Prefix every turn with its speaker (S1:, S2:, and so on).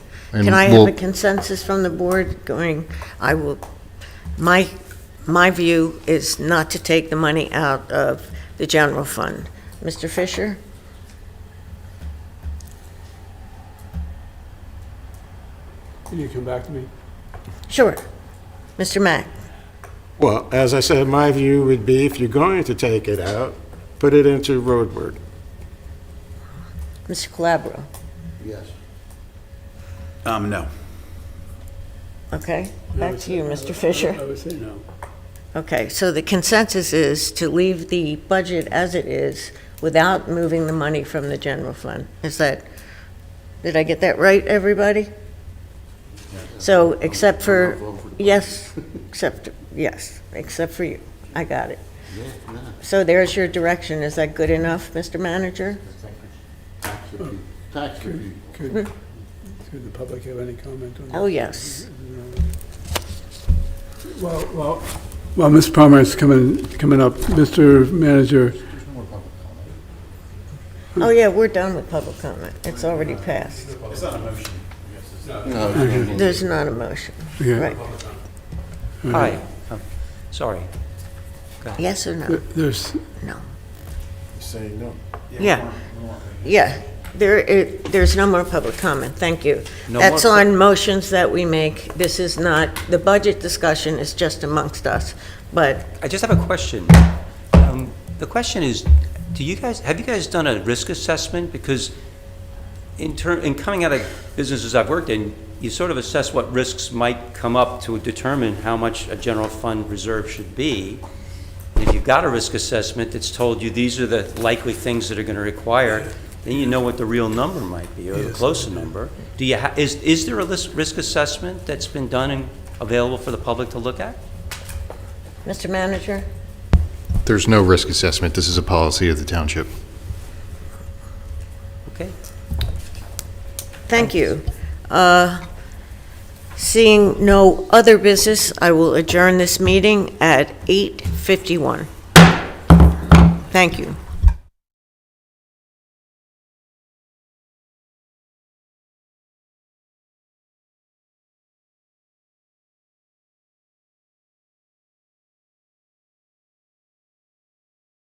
S1: And
S2: Can I have
S1: we'll-
S2: a consensus from the board going, I will, my, my view is not to take the money out of the general fund. Mr. Fisher?
S3: Can you come back to me?
S2: Sure. Mr. Mack?
S4: Well, as I said, my view would be if you're going to take it out, put it into roadward.
S2: Mr. Calabro?
S4: Yes.
S5: Um, no.
S2: Okay,
S3: I
S2: back
S3: would
S2: to
S3: say-
S2: you, Mr.
S3: I would- I
S2: Fisher.
S3: would say no.
S2: Okay, so the consensus is to leave the budget as it is without moving the money from the general fund. Is that, did I get that right, everybody? So, except for, yes, except, yes, except for you. I got it. So there's your direction. Is that good enough, Mr. Manager?
S1: Tax review.
S3: Could, could the public have any comment on that?
S2: Oh, yes.
S3: Well, well, while Ms. Palmer is coming, coming up, Mr. Manager,
S2: Oh, yeah, we're done with public comment. It's already passed. There's not a motion.
S3: yeah,
S2: Right.
S6: All right, Oh, sorry.
S2: Yes or no?
S3: th- there's,
S2: No.
S4: Say no.
S2: Yeah, yeah. There, it, there's no more public comment, thank you.
S6: No
S2: That's
S6: more-
S2: on motions that we make. This is not, the budget discussion is just amongst us, but
S6: I just have a question. Um, The question is, do you guys, have you guys done a risk assessment? Because in turn, in coming out of businesses I've worked in, you sort of assess what risks might come up to determine how much a general fund reserve should be. And If you've got a risk assessment that's told you these are the likely things that are going to require, then you know what the real number might be, or the closer number. Do you, ha- is, is there a lis- risk assessment that's been done and available for the public to look at?
S2: Mr. Manager?
S1: There's no risk assessment. This is a policy of the township.
S6: Okay.
S2: Thank you. Uh, Seeing no other business, I will adjourn this meeting at 8:51. Thank you.